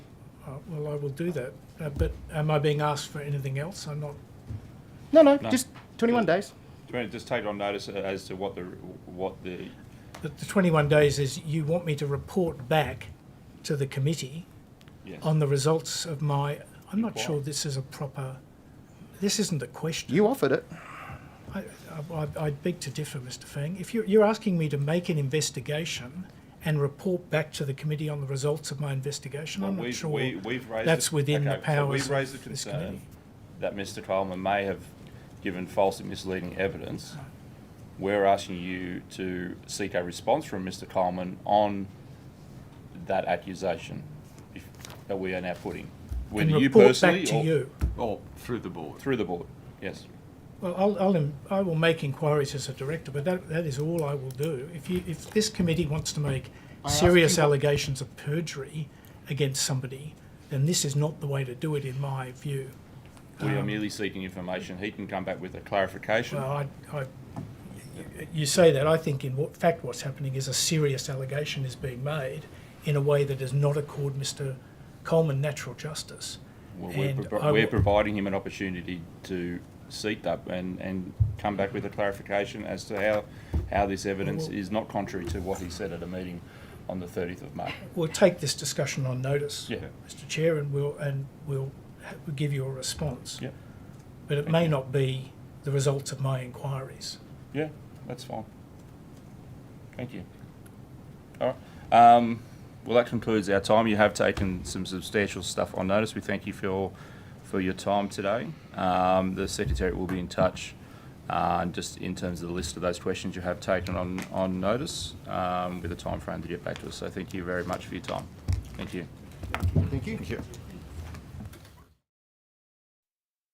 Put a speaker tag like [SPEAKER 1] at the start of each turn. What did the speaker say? [SPEAKER 1] Uh, well, I will do that. Uh, but am I being asked for anything else? I'm not.
[SPEAKER 2] No, no,
[SPEAKER 3] No.
[SPEAKER 2] just 21 days.
[SPEAKER 3] Do you want to just take on notice as to what the what the
[SPEAKER 1] The, the 21 days is you want me to report back to the committee
[SPEAKER 3] yes.
[SPEAKER 1] on the results of my. I'm not
[SPEAKER 3] Inquiry.
[SPEAKER 1] sure this is a proper. This isn't a question.
[SPEAKER 2] You offered it.
[SPEAKER 1] I, I, I beg to differ, Mr. Fang. If you're, you're asking me to make an investigation and report back to the committee on the results of my investigation, I'm not
[SPEAKER 3] we've,
[SPEAKER 1] sure.
[SPEAKER 3] we, we've raised
[SPEAKER 1] that's
[SPEAKER 3] it-
[SPEAKER 1] within the
[SPEAKER 3] okay, So
[SPEAKER 1] powers
[SPEAKER 3] we've raised the
[SPEAKER 1] of this
[SPEAKER 3] concern
[SPEAKER 1] committee.
[SPEAKER 3] that Mr. Coleman may have given false and misleading evidence. We're asking you to seek a response from Mr. Coleman on that accusation if, that we are now putting, whether
[SPEAKER 1] and
[SPEAKER 3] you
[SPEAKER 1] report
[SPEAKER 3] personally
[SPEAKER 1] back to
[SPEAKER 3] or
[SPEAKER 1] you.
[SPEAKER 4] Or through the board.
[SPEAKER 3] through the board. Yes.
[SPEAKER 1] Well, I'll, I'll, em- I will make inquiries as a director, but that, that is all I will do. If you, if this committee wants to make
[SPEAKER 2] asked
[SPEAKER 1] serious
[SPEAKER 2] you what-
[SPEAKER 1] allegations of perjury against somebody, then this is not the way to do it, in my view.
[SPEAKER 3] We
[SPEAKER 1] Um,
[SPEAKER 3] are merely seeking information. He can come back with a clarification.
[SPEAKER 1] Well, I, I, you- you say that, I think in what, fact what's happening is a serious allegation is being made in a way that does not accord Mr Coleman natural justice.
[SPEAKER 3] Well, we're,
[SPEAKER 1] And
[SPEAKER 3] pro-
[SPEAKER 1] I
[SPEAKER 3] we're
[SPEAKER 1] will-
[SPEAKER 3] providing him an opportunity to seek that and, and come back with a clarification as to how, how this evidence
[SPEAKER 1] Well-
[SPEAKER 3] is not contrary to what he said at a meeting on the thirtieth of May.
[SPEAKER 1] We'll take this discussion on notice,
[SPEAKER 3] Yeah.
[SPEAKER 1] Mr Chair, and we'll, and we'll ha- we'll give you a response.
[SPEAKER 3] Yeah.
[SPEAKER 1] But it may not be the results of my inquiries.
[SPEAKER 3] Yeah, that's fine. Thank you. All right. Um, well, that concludes our time. You have taken some substantial stuff on notice. We thank you for your, for your time today. Um, the secretary will be in touch. Uh, just in terms of the list of those questions you have taken on, on notice um, with a time frame to get back to us. So thank you very much for your time. Thank you.
[SPEAKER 2] Thank you.